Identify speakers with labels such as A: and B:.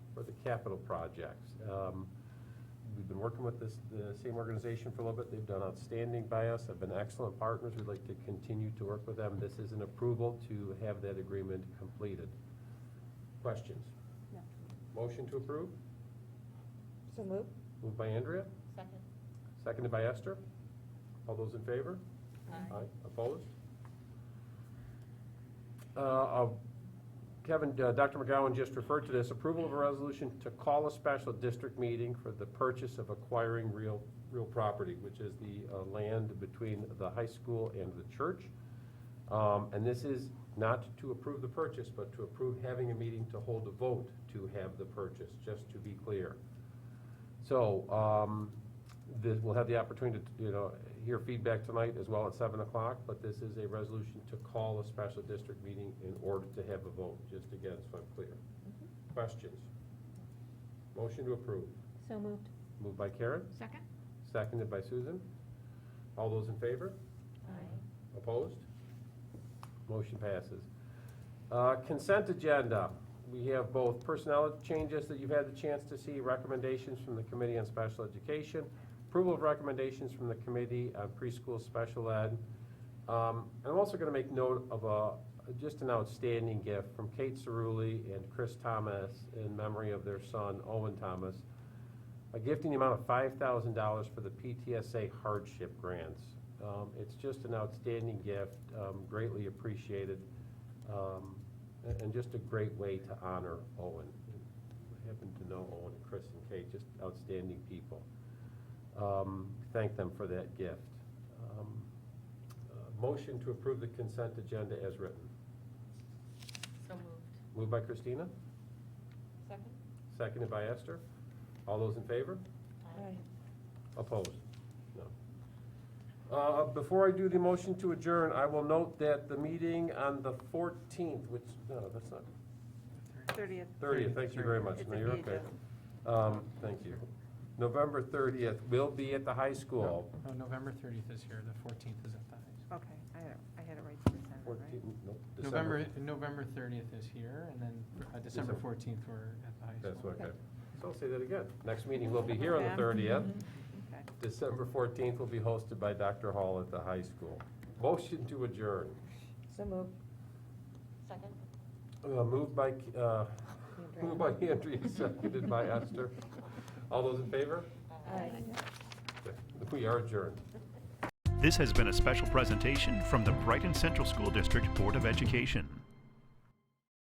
A: capital projects. Um, We've been working with this, the same organization for a little bit. They've done outstanding by us, have been excellent partners. We'd like to continue to work with them. This is an approval to have that agreement completed. Questions?
B: No.
A: Motion to approve?
B: So move.
A: Moved by Andrea,
C: Second.
A: seconded by Esther. All those in favor? Aye, opposed? Uh, uh, Kevin, uh, Dr. McGowan just referred to this, approval of a resolution to call a special district meeting for the purchase of acquiring real, real property, which is the uh, land between the high school and the church. Um, And this is not to approve the purchase, but to approve having a meeting to hold a vote to have the purchase, just to be clear. So, um, this, we'll have the opportunity to, you know, hear feedback tonight as well at seven o'clock, but this is a resolution to call a special district meeting in order to have a vote, just again, so I'm clear. Questions? Motion to approve,
B: So moved.
A: moved by Karen,
C: Second?
A: seconded by Susan. All those in favor?
C: Aye.
A: Opposed? Motion passes. Uh, Consent agenda. We have both personnel changes that you've had the chance to see, recommendations from the Committee on Special Education, approval of recommendations from the Committee on Preschool Special Ed. Um, I'm also going to make note of a, just an outstanding gift from Kate Cerulli and Chris Thomas in memory of their son Owen Thomas. A gift in the amount of five thousand dollars for the PTSA hardship grants. Um, it's just an outstanding gift, um, greatly appreciated, um, and, and just a great way to honor Owen. I happen to know Owen and Chris and Kate, just outstanding people. Um, thank them for that gift. Um, uh, Motion to approve the consent agenda as written.
C: So moved.
A: Moved by Christina,
C: Second?
A: seconded by Esther. All those in favor? Opposed? No. Uh, Before I do the motion to adjourn, I will note that the meeting on the 14th, which, no, that's not,
B: Thirtieth.
A: 30th, thank you very much.
B: It's
A: No,
B: in
A: you're
B: the
A: okay.
B: agenda.
A: Um, Thank you. November 30th will be at the high school.
D: No, November 30th is here, the 14th is at the high
B: Okay, I had, I had it right to December, right?
A: 14th, nope,
D: school.
A: December.
D: November, November 30th is here, and then uh,
A: December.
D: December 14th, we're at the high school.
A: That's okay. So I'll say that again. Next meeting will be here on
B: Okay.
A: the 30th.
B: Mm-hmm. Okay.
A: December 14th will be hosted by Dr. Hall at the high school. Motion to adjourn.
B: So moved.
C: Second?
A: Uh, Moved by, uh, moved by Andrea, seconded by Esther. All those in favor? We are adjourned.
E: This has been a special presentation from the Brighton Central School District Board of Education.